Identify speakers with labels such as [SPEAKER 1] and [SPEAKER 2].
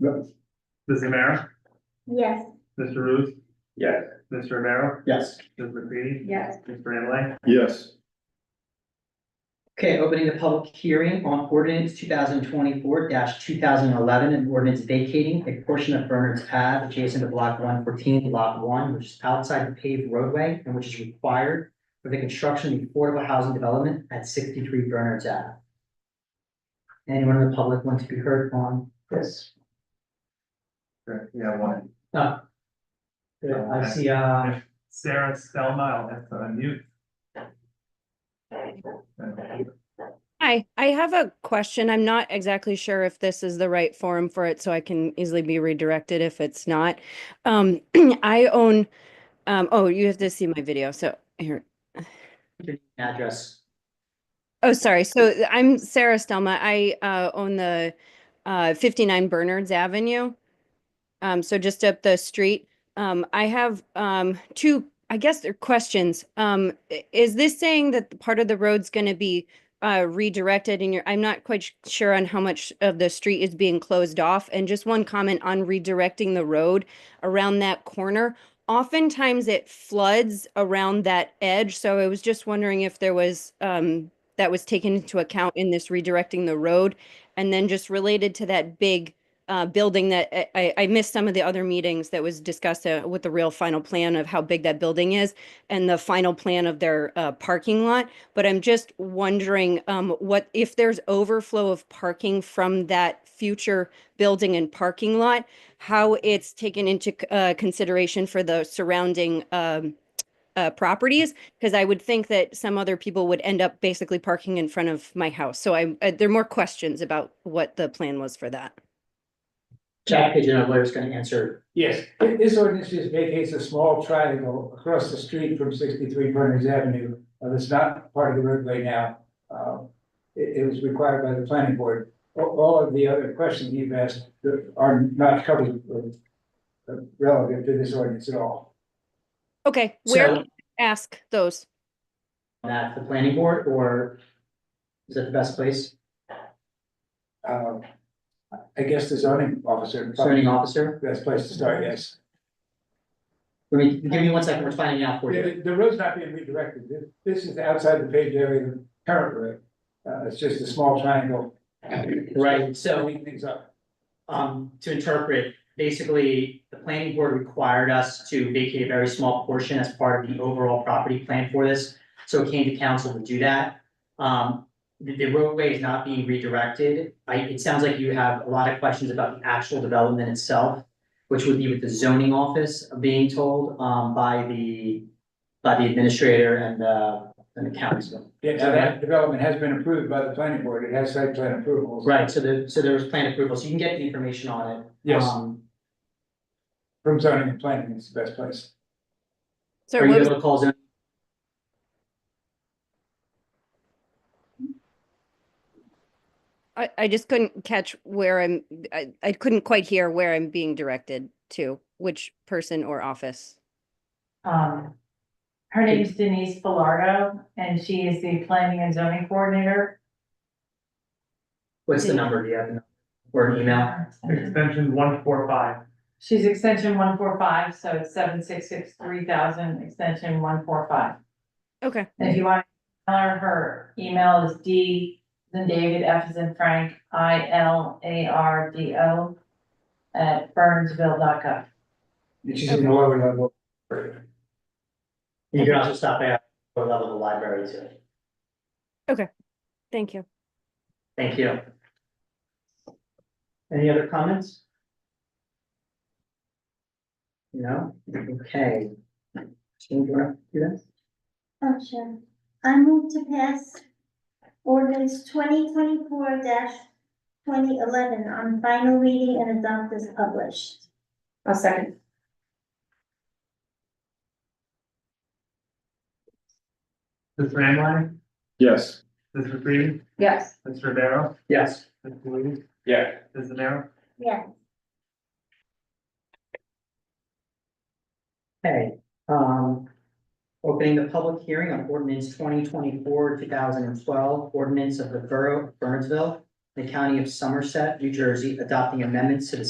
[SPEAKER 1] Yep.
[SPEAKER 2] Ms. Amer,
[SPEAKER 3] Yes.
[SPEAKER 2] Mr. Ruth,
[SPEAKER 4] Yes.
[SPEAKER 2] Mr. Romero,
[SPEAKER 1] Yes.
[SPEAKER 2] Ms. McCready,
[SPEAKER 3] Yes.
[SPEAKER 2] Mr. Lamb.
[SPEAKER 4] Yes.
[SPEAKER 5] Okay, opening the public hearing on ordinance two thousand twenty-four two thousand eleven, an ordinance vacating a portion of Bernard's Ave adjacent to block one fourteen, lot one, which is outside the paved roadway and which is required for the construction of affordable housing development at sixty-three Bernard's Ave. Anyone in the public want to be heard on this?
[SPEAKER 2] Yeah, one.
[SPEAKER 5] No. Yeah, I see, uh,
[SPEAKER 2] Sarah Stelma, I'll have to unmute.
[SPEAKER 6] Hi, I have a question. I'm not exactly sure if this is the right forum for it, so I can easily be redirected if it's not. Um, I own, um, oh, you have to see my video, so here.
[SPEAKER 5] address.
[SPEAKER 6] Oh, sorry. So I'm Sarah Stelma. I, uh, own the, uh, fifty-nine Bernards Avenue. Um, so just up the street. Um, I have, um, two, I guess they're questions. Um, i- is this saying that the part of the road's gonna be, uh, redirected and you're, I'm not quite sh- sure on how much of the street is being closed off. And just one comment on redirecting the road around that corner. Oftentimes it floods around that edge, so I was just wondering if there was, um, that was taken into account in this redirecting the road? And then just related to that big uh, building that I- I, I missed some of the other meetings that was discussed uh, with the real final plan of how big that building is and the final plan of their uh, parking lot. But I'm just wondering um, what, if there's overflow of parking from that future building and parking lot, how it's taken into c- uh, consideration for the surrounding um, uh, properties? Because I would think that some other people would end up basically parking in front of my house. So I, uh, there are more questions about what the plan was for that.
[SPEAKER 5] Jack Pigeon, our lawyer's gonna answer.
[SPEAKER 7] Yes, thi- this ordinance just vacates a small triangle across the street from sixty-three Berners Avenue, uh, that's not part of the roadway now. Uh, It, it was required by the planning board. A- All, of the other questions you've asked that are not covered uh, uh, relative to this ordinance at all.
[SPEAKER 6] Okay, where
[SPEAKER 5] So-
[SPEAKER 6] can I ask those?
[SPEAKER 5] That the planning board or is that the best place?
[SPEAKER 7] Um, I guess the zoning officer, probably
[SPEAKER 5] Zoning officer?
[SPEAKER 7] the best place to start, yes.
[SPEAKER 5] Let me, give me one second, we're finding out for you.
[SPEAKER 7] The, the road's not being redirected. This- This is outside the paved area of the current road. Uh, it's just a small triangle.
[SPEAKER 5] Right, so-
[SPEAKER 7] Cleaning Things up.
[SPEAKER 5] Um, to interpret, basically, the planning board required us to vacate a very small portion as part of the overall property plan for this. So it came to council to do that. Um, the, the roadway is not being redirected. I, it sounds like you have a lot of questions about the actual development itself, which would be with the zoning office being told, um, by the, by the administrator and the, and the council.
[SPEAKER 7] Yeah, now that development has been approved by the planning board, it has site plan approvals.
[SPEAKER 5] Right, so the, so there was plan approval, so you can get the information on it.
[SPEAKER 7] Yes.
[SPEAKER 5] Um,
[SPEAKER 7] From zoning and planning is the best place.
[SPEAKER 6] Sorry,
[SPEAKER 5] Are
[SPEAKER 6] what
[SPEAKER 5] you
[SPEAKER 6] was-
[SPEAKER 5] able to call zone?
[SPEAKER 6] I, I just couldn't catch where I'm, I, I couldn't quite hear where I'm being directed to, which person or office.
[SPEAKER 8] Um, her name is Denise Filardo, and she is the planning and zoning coordinator.
[SPEAKER 5] What's the number? Do you have? a number? Or an email?
[SPEAKER 2] Extension one four five.
[SPEAKER 8] She's extension one four five, so it's seven six six three thousand, extension one four five.
[SPEAKER 6] Okay.
[SPEAKER 8] And if you want, to tell her, her email is D, then David, F is in Frank, I L A R D O at burnsville.gov.
[SPEAKER 7] It's just in the lower level.
[SPEAKER 5] You can also stop by our level of the library too.
[SPEAKER 6] Thank you.
[SPEAKER 5] Thank you. Any other comments? No? Okay. Jean, do you want to do this?
[SPEAKER 3] Oh, sure. I move to pass ordinance twenty twenty-four twenty eleven on final reading and adopt as published.
[SPEAKER 8] A second.
[SPEAKER 2] Ms. Lamb,
[SPEAKER 4] Yes.
[SPEAKER 2] Ms. McCready,
[SPEAKER 8] Yes.
[SPEAKER 2] Mr. Romero,
[SPEAKER 5] Yes.
[SPEAKER 2] Ms. Ruth,
[SPEAKER 4] Yeah.
[SPEAKER 2] Ms. Amer.
[SPEAKER 3] Yes.
[SPEAKER 5] Okay, um, opening the public hearing on ordinance twenty twenty-four, two thousand and twelve, ordinance of the Borough of Burnsville, the County of Somerset, New Jersey, adopting amendments to the